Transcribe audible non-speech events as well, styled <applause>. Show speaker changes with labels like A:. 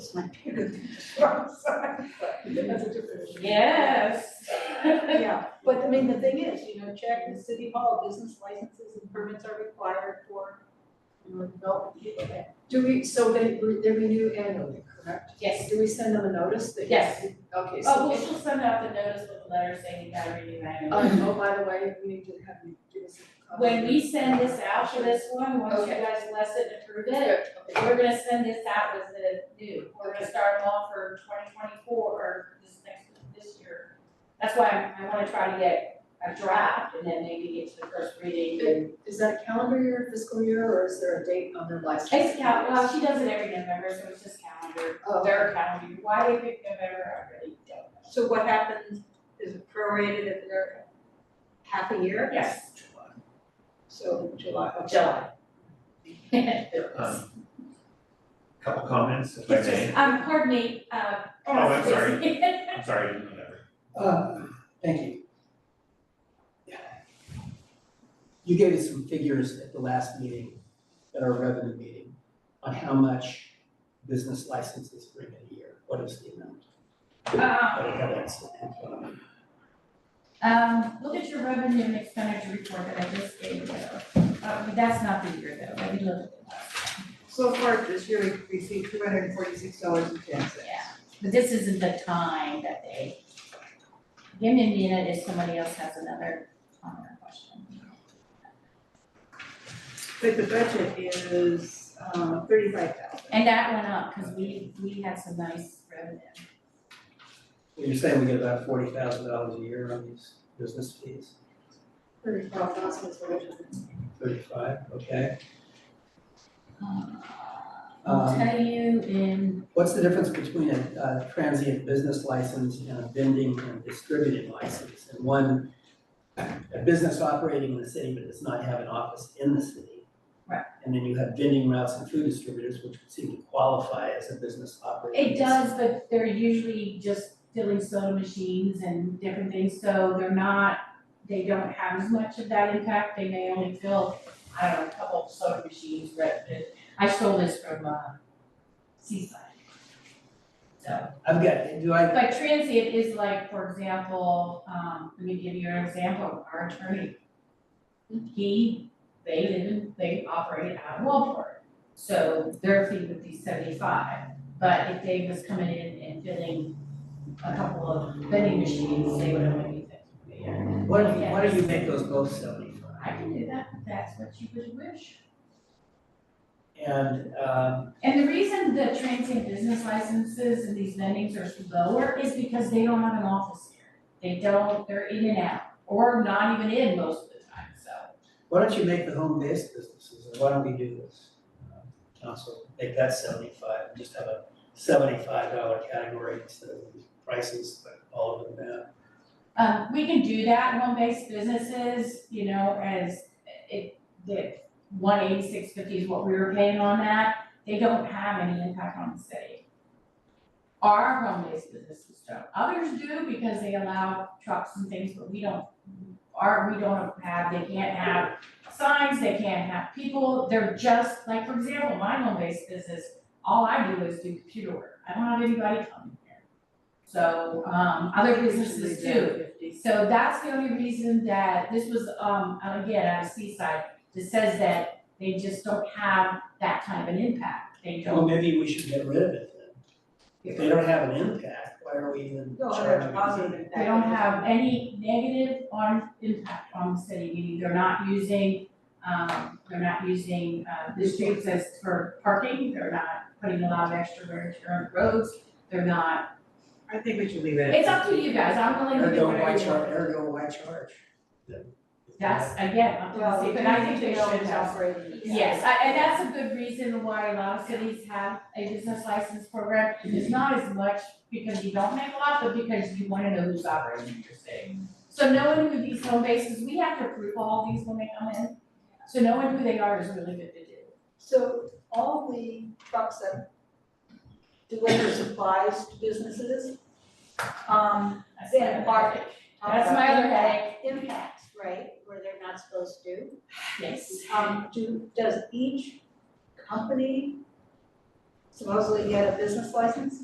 A: was my parents. <laughs> That's a different issue.
B: Yes.
A: Yeah, but I mean, the thing is, you know, check the city hall, business licenses and permits are required for, you know, development.
C: Do we, so they, re- they renew annually, correct?
B: Yes.
C: Do we send them a notice that?
B: Yes.
C: Okay,
B: Oh,
C: so,
B: well, she'll send out the notice with a letter saying you gotta renew annually.
C: um, oh, by the way, we need to have you give us a copy.
B: When we send this out for this one, once you
C: Okay.
B: guys bless it and approve it,
C: Good, okay.
B: we're gonna send this out as the new, we're gonna start them off for twenty twenty-four, or this next, this year. That's why I, I wanna try to get a draft, and then maybe get to the first reading.
C: Is- Is that a calendar year, fiscal year, or is there a date on their license?
B: It's cal, well, she does it every November, so it's just calendar,
C: Oh.
B: their calendar, why they pick November, I really don't know.
A: So what happens is it prorated if they're half a year?
B: Yes. <laughs>
A: So July, okay.
B: July.
D: Um, Couple comments, if I
B: It's just,
D: may.
B: um, pardon me, uh.
D: Oh, I'm sorry.
B: Stacy.
D: I'm sorry, I didn't know that.
E: Uh, Thank you. You gave us some figures at the last meeting, at our revenue meeting, on how much business licenses bring in a year. What is the amount? I don't
B: <laughs> Um,
E: have that sitting in front of me.
B: um, look at your revenue and expenditure report that I just gave you. Uh, that's not the year though, let me look at that.
A: So far this year, we received two hundred and forty-six dollars and ten cents.
B: Yeah, but this isn't the time that they. Give me a minute if somebody else has another comment or question.
A: But the budget is, um, thirty-five thousand.
B: And that went up, cause we, we had some nice revenue.
E: Well, You're saying we get about forty thousand dollars a year on these business fees?
C: Thirty-five thousand is what it is.
E: Thirty-five, okay.
B: Um, I'll
E: Um,
B: tell you in,
E: what's the difference between a, a transient business license and a vending and distributing license? And one, a business operating in the city but does not have an office in the city.
B: Right.
E: And then you have vending routes and food distributors, which would seem to qualify as a business operating.
B: it does, but they're usually just filling soda machines and different things, so they're not, they don't have as much of that impact, they may only fill, I don't know, a couple of soda machines, but it- I stole this from, uh, Seaside. So.
E: I've got, do I,
B: But transient is like, for example, um, let me give you an example, our attorney. He, they didn't, they operated out of Walport, so their fee would be seventy-five. But if they was coming in and filling a couple of vending machines, they would only be fifty. Yeah,
E: why don't you, why don't you make those both seventy-five?
B: I can do that, if that's what you would wish.
E: And, um,
B: And the reason the transient business licenses and these vendings are so lower is because they don't have an office here. They don't, they're in and out, or not even in most of the time, so.
E: Why don't you make the home-based businesses, and why don't we do this? uh, Council, make that seventy-five, and just have a seventy-five dollar category instead of prices, like all of them uh, now.
B: Um, we can do that, home-based businesses, you know, as it, the one eighty-six fifty is what we were paying on that. They don't have any impact on the city. Our home-based businesses don't. Others do because they allow trucks and things, but we don't. Our, we don't have, they can't have signs, they can't have people. They're just, like, for example, my home-based business, all I do is do computer work. I don't have anybody coming here. So, um, other businesses do. So that's the only reason that this was, um, again, out of Seaside, that says that they just don't have that kind of an impact. They
E: Well,
B: don't,
E: maybe we should get rid of it then. If they don't have an impact, why are we even
A: No, they're
E: charging?
A: positive
E: them?
A: impact.
B: they don't have any negative on impact on the city, meaning they're not using, um, they're not using, uh, the streets as for parking, they're not putting a lot of extra wear and tear on roads, they're not,
A: I think we should leave it. at
B: it's up to you guys, I'm willing to do
E: Ergo, why
B: whatever you
E: charge,
B: want.
E: ergo, why charge? them?
B: That's, again, up to the
A: Well,
B: city,
A: but
B: but I think they should have.
A: operating.
B: Yes, I- and that's a good reason why a lot of cities have a business license program. It's not as much because you don't make a lot, but because you wanna know who's operating in your city. So knowing who these home bases, we have to approve all these when they come in. So knowing who they are is really good to do.
A: So all the trucks that deliver supplies to businesses, um,
B: That's my
A: then
B: other
A: are.
B: headache. That's my other headache,
A: Impacts, Uh, right, where they're not supposed to.
B: yes.
A: Um, do, does each company supposedly he had a business license?